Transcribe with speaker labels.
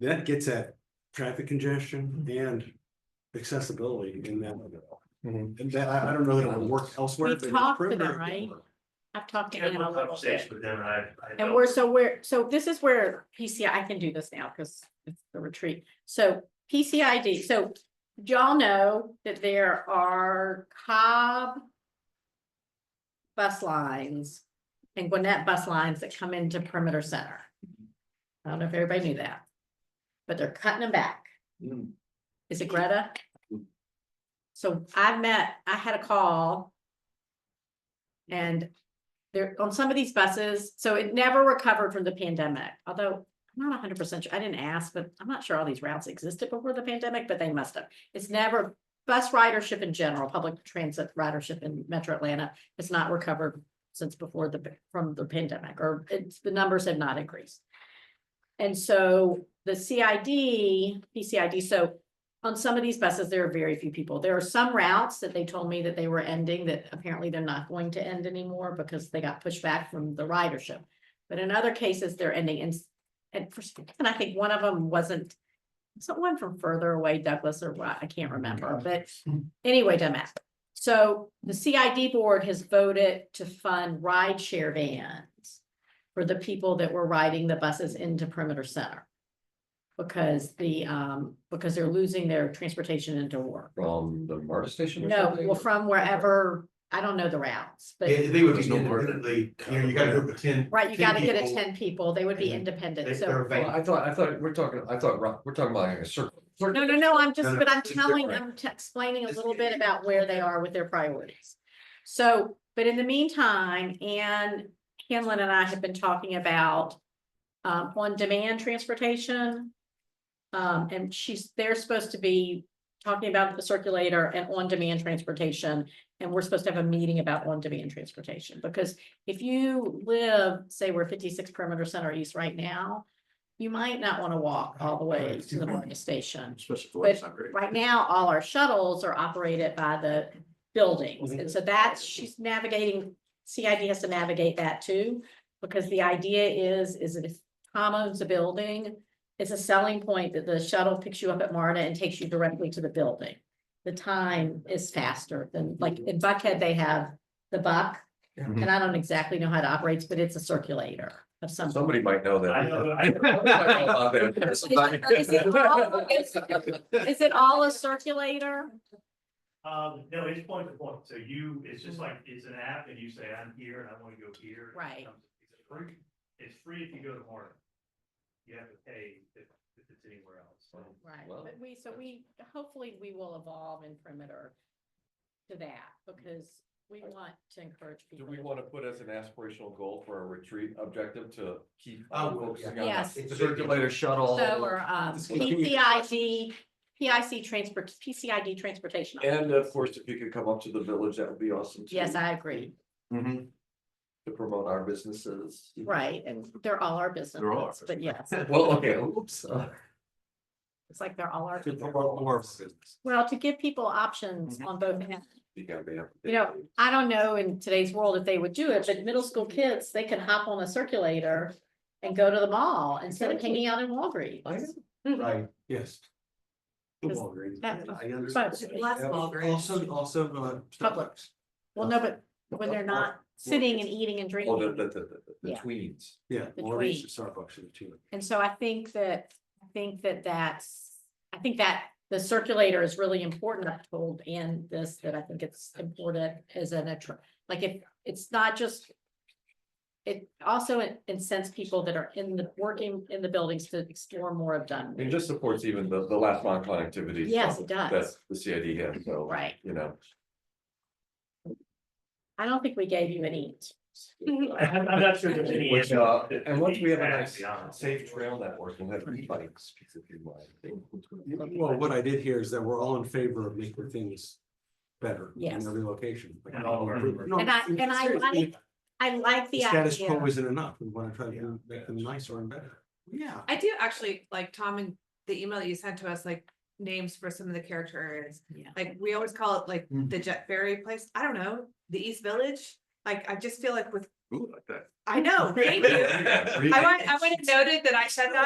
Speaker 1: that gets at traffic congestion and accessibility in that.
Speaker 2: Mhm.
Speaker 1: And that, I, I don't know that it would work elsewhere.
Speaker 3: We've
Speaker 1: but it's
Speaker 3: talked to
Speaker 1: perimeter
Speaker 3: them, right?
Speaker 1: work.
Speaker 3: I've talked to
Speaker 4: Yeah,
Speaker 3: him a
Speaker 4: more
Speaker 3: little bit.
Speaker 4: conversations with them and I, I.
Speaker 3: And
Speaker 4: know.
Speaker 3: we're, so we're, so this is where PCI, I can do this now because it's the retreat. So PCID, so y'all know that there are Cobb bus lines and Gwinnett bus lines that come into Perimeter Center. I don't know if everybody knew that. But they're cutting them back.
Speaker 1: Mm.
Speaker 3: Is it Greta? So I met, I had a call. And there, on some of these buses, so it never recovered from the pandemic, although I'm not hundred percent sure, I didn't ask, but I'm not sure all these routes existed before the pandemic, but they must have. It's never, bus ridership in general, public transit ridership in metro Atlanta has not recovered since before the, from the pandemic, or it's, the numbers have not increased. And so the CID, PCID, so on some of these buses, there are very few people. There are some routes that they told me that they were ending that apparently they're not going to end anymore because they got pushed back from the ridership. But in other cases, they're ending and, s- and for, some reason, I think one of them wasn't, someone from further away, Douglas or what, I can't remember, but anyway, doesn't matter. So the CID board has voted to fund rideshare vans for the people that were riding the buses into perimeter center. Because the, um, because they're losing their transportation into work.
Speaker 2: From the MARTA station? or
Speaker 3: No,
Speaker 2: something?
Speaker 3: well, from wherever, I don't know the routes, but,
Speaker 4: They, they would be
Speaker 2: There's no more than-
Speaker 4: independently, you know, you gotta group of ten.
Speaker 3: right, you
Speaker 4: 10
Speaker 3: gotta get it
Speaker 4: people.
Speaker 3: ten people, they would be
Speaker 4: Mhm.
Speaker 3: independent,
Speaker 4: They-
Speaker 3: so.
Speaker 4: they're a
Speaker 2: Well,
Speaker 4: van.
Speaker 2: I thought, I thought, we're talking, I thought, ro- we're talking about like a circle.
Speaker 3: No, no, no, I'm
Speaker 4: No,
Speaker 3: just,
Speaker 4: no,
Speaker 3: but I'm
Speaker 4: it's
Speaker 3: telling,
Speaker 4: different.
Speaker 3: I'm t- explaining a little bit about where they are with their priorities. So, but in the meantime, Ann Hanlon and I have been talking about um, on-demand transportation. Um, and she's, they're supposed to be talking about the circulator and on-demand transportation. And we're supposed to have a meeting about on-demand transportation, because if you live, say, we're fifty-six perimeter center east right now, you might not want to walk all the way to the Market Station.
Speaker 4: Especially
Speaker 3: But Right now, all our shuttles are operated by the buildings, and so that's, she's navigating, CID has to navigate that too. Because the idea is, is that if Tom owns a building, it's a selling point that the shuttle picks you up at Marta and takes you directly to the building. The time is faster than, like, in Buckhead, they have the buck, and I don't exactly know how it operates, but it's a circulator of some.
Speaker 2: Somebody might know that.
Speaker 4: I know, I.
Speaker 2: I know about that. Somebody-
Speaker 3: Is it all- is- Is it all a circulator?
Speaker 4: Um, no, it's point to point, so you, it's just like, it's an app and you say, I'm here and I wanna go here. It
Speaker 3: Right.
Speaker 4: comes- It's free, it's free if you go to Martin. You have to pay if, if it's anywhere else, so.
Speaker 3: Right,
Speaker 2: Well,
Speaker 3: but we, so we, hopefully we will evolve in perimeter to that, because we want to encourage
Speaker 2: Do
Speaker 3: people.
Speaker 2: we want to put as an aspirational goal for a retreat objective to keep
Speaker 4: Oh,
Speaker 2: focusing
Speaker 4: yeah.
Speaker 2: on
Speaker 3: Yes.
Speaker 4: It's a big deal.
Speaker 2: circulator shuttle?
Speaker 3: So, or, um,
Speaker 2: Just continue.
Speaker 3: PCID, PIC transport, PCID transportation.
Speaker 2: And of course, if you could come up to the village, that would be awesome. too,
Speaker 3: Yes, I agree,
Speaker 2: To promote our businesses.
Speaker 3: right, and they're all our
Speaker 2: all our
Speaker 3: businesses, but yes,
Speaker 2: Well, okay, oops. uh,
Speaker 3: it's like they're all our,
Speaker 2: To promote more of our business.
Speaker 3: well, to give people options
Speaker 2: Mm-hmm.
Speaker 3: on both ends.
Speaker 2: You gotta be up to
Speaker 3: You know, I don't know in today's world if they would do it, but middle school kids, they can hop on a circulator and go to the mall instead of hanging out in
Speaker 2: I know.
Speaker 3: Walgreens.
Speaker 1: Right, yes. The
Speaker 3: Because
Speaker 1: Walgreens,
Speaker 3: that-
Speaker 1: I understand.
Speaker 3: But,
Speaker 5: Less Walgreens.
Speaker 1: Also, also, uh.
Speaker 3: Publix. well, no, but when they're not sitting and eating and
Speaker 2: Oh, the, the,
Speaker 3: drinking.
Speaker 2: the, the- the
Speaker 3: Yeah.
Speaker 2: tweens.
Speaker 1: Yeah,
Speaker 3: The
Speaker 1: Walgreens,
Speaker 3: tweet.
Speaker 1: Starbucks, and the two.
Speaker 3: And so I think that, I think that that's, I think that the circulator is really important. I've told Ann this, that I think it's important as an, attr- like if, it's not just. It also incents people that are in the, working in the buildings to explore more of
Speaker 2: It
Speaker 3: Dunwoody.
Speaker 2: just supports even the, the last mile connectivity.
Speaker 3: Yes,
Speaker 2: stuff
Speaker 3: it does.
Speaker 2: That the CID has, so.
Speaker 3: Right.
Speaker 2: You know,
Speaker 3: I don't think we gave you any.
Speaker 4: I'm, I'm not sure there's any.
Speaker 2: which,
Speaker 4: answer
Speaker 2: uh,
Speaker 4: to-
Speaker 2: and once we have a
Speaker 4: to
Speaker 2: nice
Speaker 4: be honest.
Speaker 2: safe trail network, we'll have e-bikes. if you like.
Speaker 1: Well, what I did hear is that we're all in favor of making things better
Speaker 3: Yes.
Speaker 1: in every location. like,
Speaker 4: And all of our-
Speaker 1: No,
Speaker 3: And I- and I
Speaker 1: seriously,
Speaker 3: like I like
Speaker 1: the
Speaker 3: the
Speaker 1: Status
Speaker 3: idea.
Speaker 1: quo isn't enough, we wanna try to make them nicer and better. Yeah.
Speaker 5: I do actually, like Tom and the email that you sent to us, like names for some of the character areas.
Speaker 3: Yeah.
Speaker 5: Like, we always call it like
Speaker 1: Mhm.
Speaker 5: the Jet Ferry place. I don't know, the East Village. Like, I just feel like with,
Speaker 2: Ooh, like that.
Speaker 5: I know, thank you.
Speaker 2: Yeah,
Speaker 5: I want, I want it noted that I said that